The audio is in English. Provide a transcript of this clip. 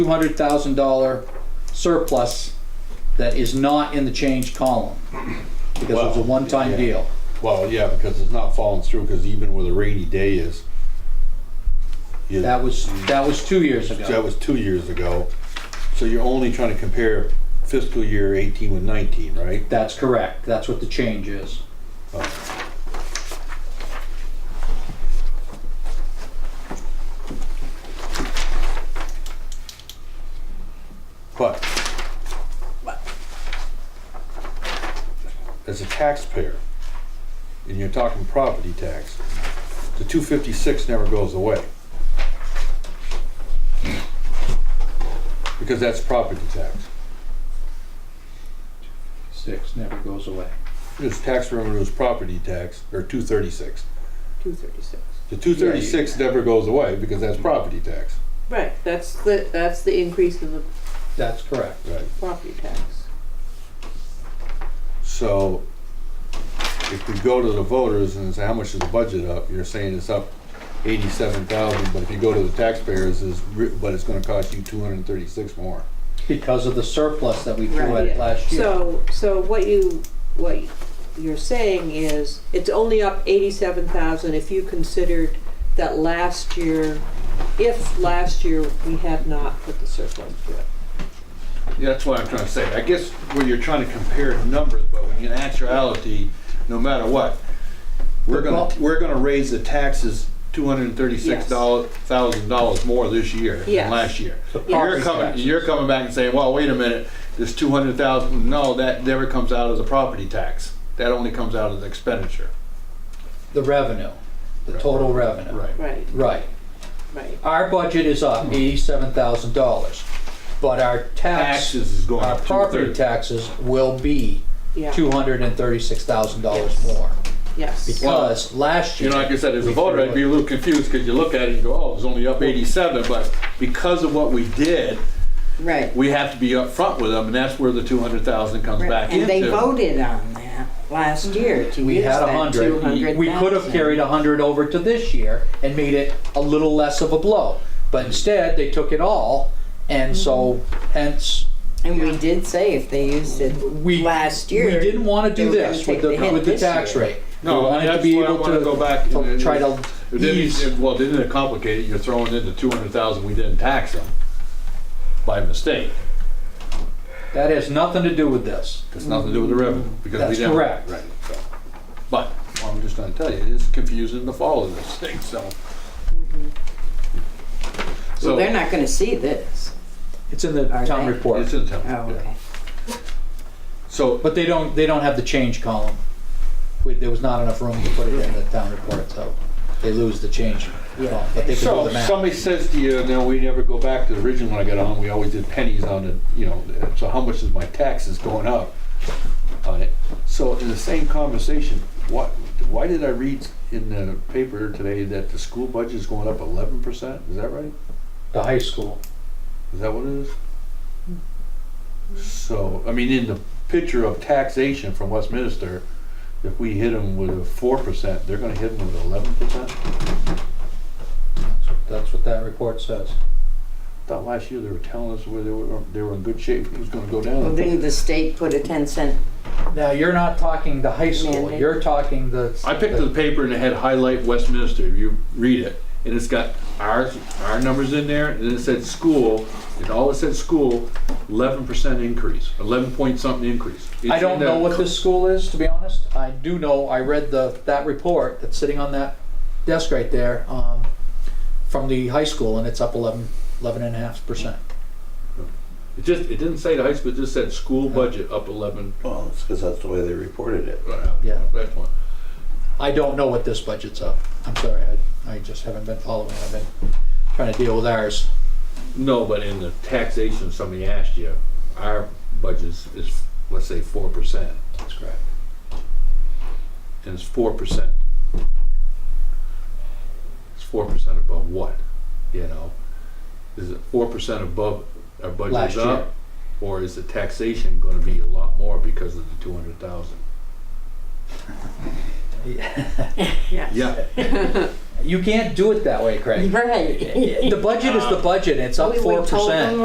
$200,000 surplus that is not in the change column. Because it was a Well, one-time yeah. deal. Well, yeah, because it's not falling through, because even with a rainy day is. you- That was, that was two years That ago. was two years ago. So you're only trying to compare fiscal year eighteen with nineteen, right? That's correct. That's what the change is. But. As a taxpayer, and you're talking property tax, the two fifty-six never goes away. Because that's property tax. Six never goes away. It's tax revenue is property tax, or two thirty-six. Two thirty-six. The two thirty-six never goes away because that's property tax. Right, that's the, that's the increase in the That's correct. Right. property tax. So if we go to the voters and say, how much is the budget up? You're saying it's up eighty-seven thousand, but if you go to the taxpayers, is, but it's gonna cost you two hundred and thirty-six more. Because of the surplus that we threw Right. at last year. So, so what you, what you're saying is, it's only up eighty-seven thousand if you considered that last year, if last year we had not put the surplus to it. Yeah, That's what I'm trying to say. I guess where you're trying to compare numbers, but when in actuality, no matter what, we're gonna, Well- we're gonna raise the taxes two hundred and thirty-six thousand dollars more this year than Yes. last year. You're property coming, taxes. you're coming back and saying, well, wait a minute, this two hundred thousand, no, that never comes out of the property tax. That only comes out of the expenditure. The revenue, the total revenue. Right, Right. right. Our budget is up eighty-seven thousand dollars, but our tax, Taxes is going our up property two thirty. taxes will be Yeah. two hundred and thirty-six thousand dollars Yes. more. Yes. Because last You year. know, like I said, as a voter, I'd be a little confused because you look at it and go, oh, it's only up eighty-seven, but because of what we did, Right. we have to be upfront with them, and that's where the two hundred thousand comes back into. And they voted on that last year to We use had a that two hundred, hundred. we could have carried a hundred over to this year and made it a little less of a blow. But instead, they took it all, and so Mm-hmm. hence, And we did say if they used it we. last year. We didn't wanna do they were gonna this with take the, hit with the this tax year. rate. We No, wanted to that's be where I able wanna to- go back and- to and- Try to It didn't- ease. it- Well, didn't it complicate it? You're throwing in the two hundred thousand we didn't tax them by mistake. That has nothing to do with this. It's nothing to do with the revenue. Mm-hmm. because we That's didn't- correct. Right. so. But, well, I'm just gonna tell you, it is confusing to follow this thing, so. So So, Mm-hmm. they're not gonna see this. It's in the Are town they? report. it's in the town. Oh, yeah. okay. So, But they don't, they don't have the change column. We- There was not enough room to put it in the town report, so they lose the change. column, But they could do so the if math. somebody says to you, no, we never go back to the original when I got on, we always did pennies on the, you know, so how much is my taxes going up on it? So in the same conversation, what, why did I read in the paper today that the school budget is going up eleven percent? Is that right? The high school. Is that what it is? So, I mean, in the picture of taxation from Westminster, if we hit them with a four percent, they're gonna hit them with eleven percent? That's what that report says. Thought last year they were telling us where they were, they were in good shape, it was gonna go down. Well, didn't the state put a ten cent? Now, you're not talking the high school, Mandate. you're talking the. I picked up the paper and it had highlight Westminster, if you read it, and it's got our, our numbers in there, and then it said school, and all it said school, eleven percent increase, eleven point something increase. I don't It's in know the- what this school is, to be honest. I do know, I read the, that report that's sitting on that desk right there, um, from the high school, and it's up eleven, eleven and a half percent. It just, it didn't say the high school, it just said school budget up eleven. uh, Well, it's because that's the way they reported it. Yeah. That's one. I don't know what this budget's up. I'm sorry, I, I just haven't been following. I've been trying to deal with ours. No, but in the taxation, somebody asked you, our budget is, let's say, four percent, That's correct. and it's four percent. It's four percent above what, you know? Is it four percent above our Last budget's year. up? Or is the taxation gonna be a lot more because of the two hundred thousand? Yeah, You can't do it that way, Craig. Right. The budget is the budget, it's up We- we four told them percent.